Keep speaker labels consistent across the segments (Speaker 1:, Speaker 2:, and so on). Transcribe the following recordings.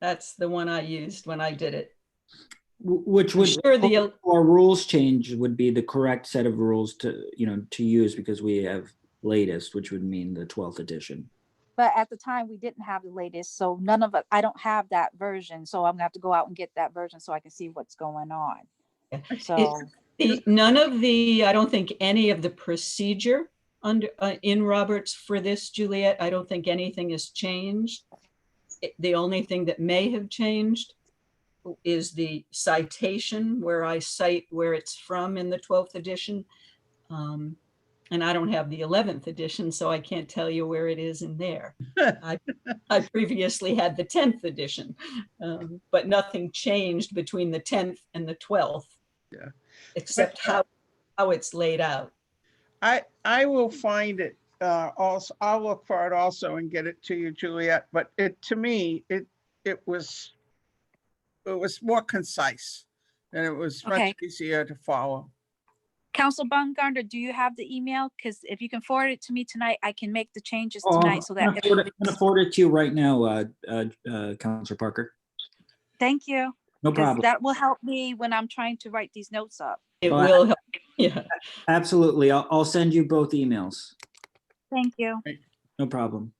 Speaker 1: That's the one I used when I did it.
Speaker 2: Wh- Which
Speaker 1: I'm
Speaker 2: would,
Speaker 1: sure the,
Speaker 2: or rules change would be the correct set of rules to, you know, to use because we have latest, which would mean the twelfth edition.
Speaker 3: But at the time, we didn't have the latest, so none of us, I don't have that version, so I'm gonna have to go out and get that version so I can see what's going on.
Speaker 1: Yeah.
Speaker 3: So,
Speaker 1: the- none of the, I don't think any of the procedure under, uh, in Roberts for this, Juliet, I don't think anything has changed. It- The only thing that may have changed is the citation where I cite where it's from in the 12th edition. Um, And I don't have the 11th edition, so I can't tell you where it is in there. I I previously had the 10th edition, um, but nothing changed between the 10th and the 12th.
Speaker 4: Yeah.
Speaker 1: Except how, how it's laid out.
Speaker 4: I, I will find it, uh, also, I'll look for it also and get it to you, Juliet, but it, to me, it, it was, it was more concise and it was
Speaker 3: Okay.
Speaker 4: much easier to follow.
Speaker 3: Council Baumgartner, do you have the email? Because if you can forward it to me tonight, I can make the changes
Speaker 2: Oh,
Speaker 3: tonight so
Speaker 2: I'm
Speaker 3: that.
Speaker 2: gonna forward it- I'm gonna forward it to you right now, uh, uh, uh, Counselor Parker.
Speaker 3: Thank you,
Speaker 2: No
Speaker 3: 'cause
Speaker 2: problem.
Speaker 3: that will help me when I'm trying to write these notes up.
Speaker 1: It
Speaker 2: Well, I-
Speaker 1: will, help. yeah.
Speaker 2: Absolutely. I'll, I'll send you both emails.
Speaker 3: Thank you.
Speaker 2: No problem.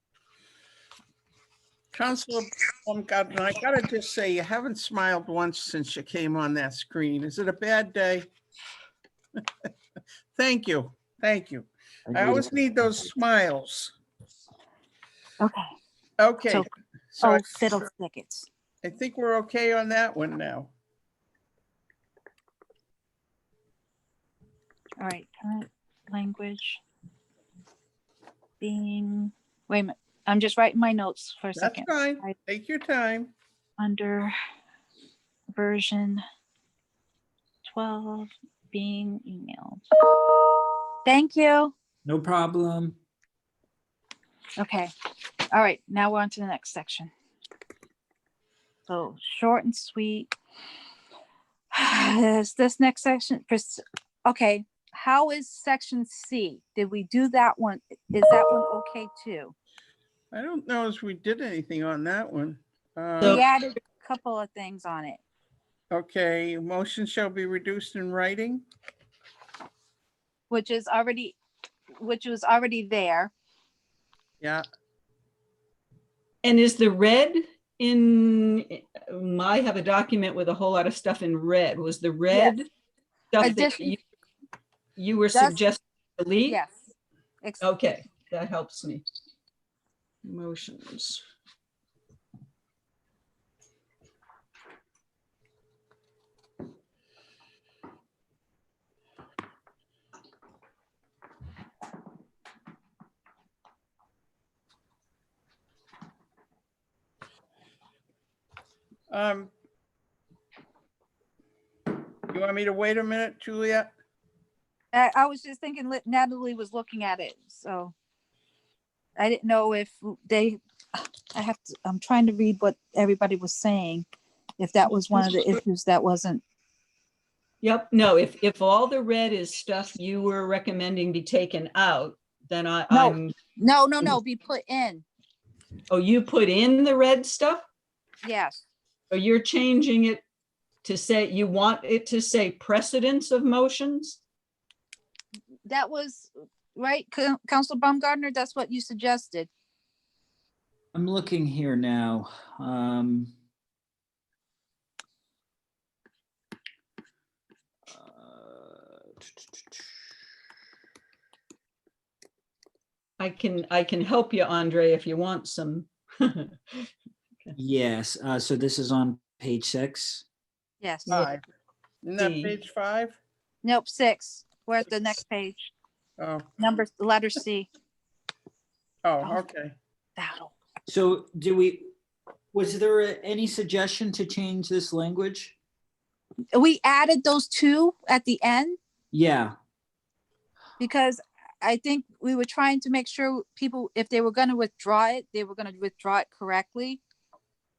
Speaker 4: Counselor Baumgartner, I gotta just say, you haven't smiled once since you came on that screen. Is it a bad day? Thank you, thank you. I always need those smiles.
Speaker 3: Okay.
Speaker 4: Okay.
Speaker 3: So-
Speaker 4: so
Speaker 3: Oh,
Speaker 4: I-
Speaker 3: fiddlestickets.
Speaker 4: I think we're okay on that one now.
Speaker 3: All right, current language. Being, wait a minute, I'm just writing my notes for a
Speaker 4: That's
Speaker 3: second.
Speaker 4: fine.
Speaker 3: I-
Speaker 4: Take your time.
Speaker 3: under version 12 being emailed. Thank you.
Speaker 2: No problem.
Speaker 3: Okay. All right. Now we're on to the next section. So short and sweet. Is this next section? pers- Okay. How is section C? Did we do that one? Is that one okay too?
Speaker 4: I don't know if we did anything on that one.
Speaker 1: So-
Speaker 3: We
Speaker 4: Uh,
Speaker 3: added a couple of things on it.
Speaker 4: Okay, motion shall be reduced in writing.
Speaker 3: which is already, which was already there.
Speaker 4: Yeah,
Speaker 1: And is the red in, um, I have a document with a whole lot of stuff in red. Was the red? stuff that
Speaker 3: Addition-
Speaker 1: you- You were
Speaker 3: That's-
Speaker 1: suggesting delete?
Speaker 3: Yes. Ex-
Speaker 1: Okay, that helps me. Motions.
Speaker 4: um. You want me to wait a minute, Juliet?
Speaker 3: I, I was just thinking li- Natalie was looking at it, so. I didn't know if they, I have to, I'm trying to read what everybody was saying. If that was one of the issues that wasn't,
Speaker 1: Yep, no, if, if all the red is stuff you were recommending be taken out, then I,
Speaker 3: No.
Speaker 1: I'm,
Speaker 3: no, no, no, be put in,
Speaker 1: oh, you put in the red stuff?
Speaker 3: yes.
Speaker 1: Or you're changing it to say, you want it to say precedence of motions?
Speaker 3: That was, right, Coun- Council Baumgartner, that's what you suggested.
Speaker 2: I'm looking here now. Um. uh,
Speaker 1: I can, I can help you, Andre, if you want some.
Speaker 2: Yes, uh, so this is on page six.
Speaker 3: Yes,
Speaker 1: Yeah.
Speaker 4: Five. Isn't that
Speaker 1: D.
Speaker 4: page five?
Speaker 3: nope, six, we're at the next page,
Speaker 4: Oh,
Speaker 3: number, letter C.
Speaker 4: oh, okay.
Speaker 3: That'll-
Speaker 2: So do we, was there a- any suggestion to change this language?
Speaker 3: We added those two at the end,
Speaker 2: Yeah,
Speaker 3: because I think we were trying to make sure people, if they were gonna withdraw it, they were gonna withdraw it correctly.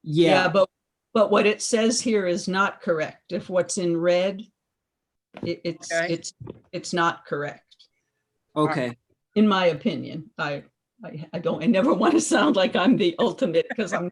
Speaker 2: yeah,
Speaker 1: But, but what it says here is not correct. If what's in red, it, it's,
Speaker 4: Okay.
Speaker 1: it's, it's not correct.
Speaker 2: okay.
Speaker 1: in my opinion. I, I, I don't, I never want to sound like I'm the ultimate because I'm